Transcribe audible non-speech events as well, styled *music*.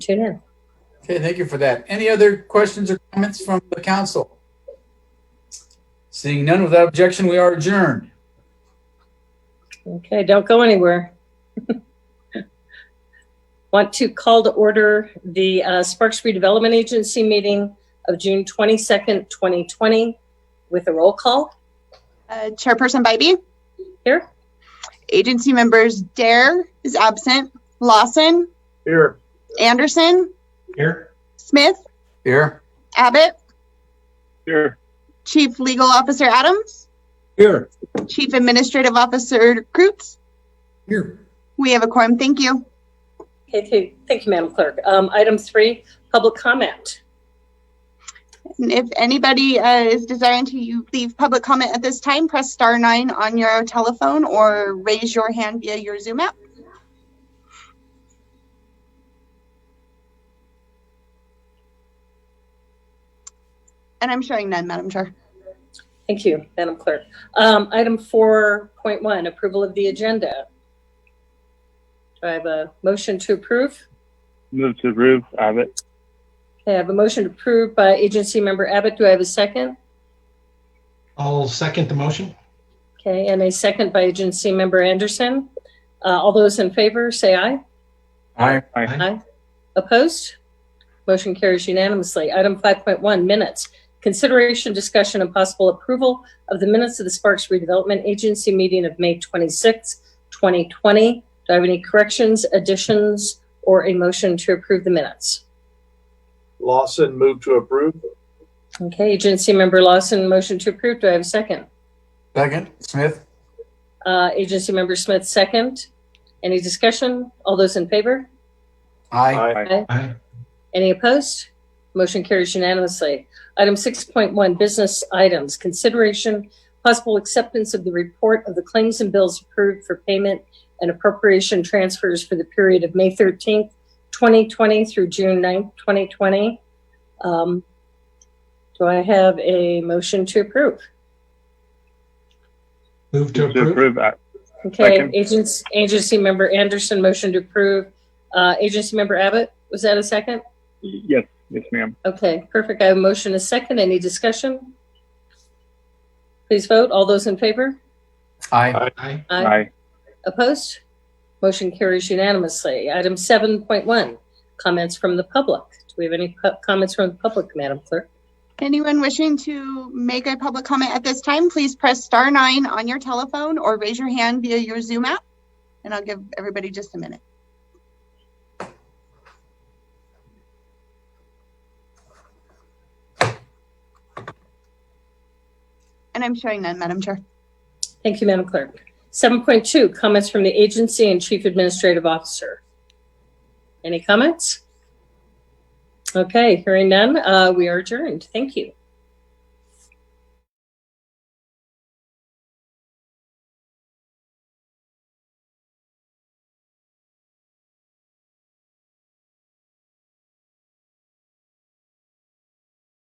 tune in. Okay, thank you for that. Any other questions or comments from the council? Seeing none without objection, we are adjourned. Okay, don't go anywhere. *laughs* Want to call to order the uh, Sparks Redevelopment Agency meeting of June 22nd, 2020 with a roll call Uh, Chairperson Bybee, here. agency members Dare is absent, Lawson, Here. Anderson, Here. Smith, Here. Abbott, Here. Chief Legal Officer Adams, Here. Chief Administrative Officer Kreutz. Here. We have a quorum. Thank you. Okay, th- thank you, Madam Clerk. Um, Item three, public comment. And if anybody uh, is desiring to you leave public comment at this time, press star nine on your telephone or raise your hand via your Zoom app. And I'm showing none, Madam Chair. Thank you, Madam Clerk. Um, Item 4.1, approval of the agenda. Do I have a motion to approve? Move to approve, Abbott. Okay, I have a motion approved by Agency Member Abbott. Do I have a second? I'll second the motion. Okay, and a second by agency member Anderson. Uh, all those in favor, say aye. Aye. Aye. Opposed? Motion carries unanimously. Item 5.1, minutes. Consideration, discussion, and possible approval of the minutes of the Sparks Redevelopment Agency meeting of May 26, 2020. Do I have any corrections, additions, or a motion to approve the minutes? Lawson moved to approve. Okay, agency member Lawson, motion to approve. Do I have a second? Second, Smith. Uh, agency member Smith, second. Any discussion? All those in favor? Aye. Aye. Any opposed? Motion carries unanimously. Item 6.1, business items. Consideration, possible acceptance of the report of the claims and bills approved for payment and appropriation transfers for the period of May 13th, 2020 through June 9th, 2020. Um, Do I have a motion to approve? Move to Move approve. Ab- Okay, Second. agency, agency member Anderson, motion to approve. Uh, Agency member Abbott, was that a second? Yes, yes, ma'am. Okay, perfect. I have a motion, a second. Any discussion? Please vote. All those in favor? Aye. Aye. Aye. Opposed? Motion carries unanimously. Item 7.1, comments from the public. Do we have any pu- comments from the public, Madam Clerk? Anyone wishing to make a public comment at this time, please press star nine on your telephone or raise your hand via your Zoom app. And I'll give everybody just a minute. And I'm showing none, Madam Chair. Thank you, Madam Clerk. 7.2, comments from the agency and Chief Administrative Officer. Any comments? Okay, hearing none, uh, we are adjourned. Thank you.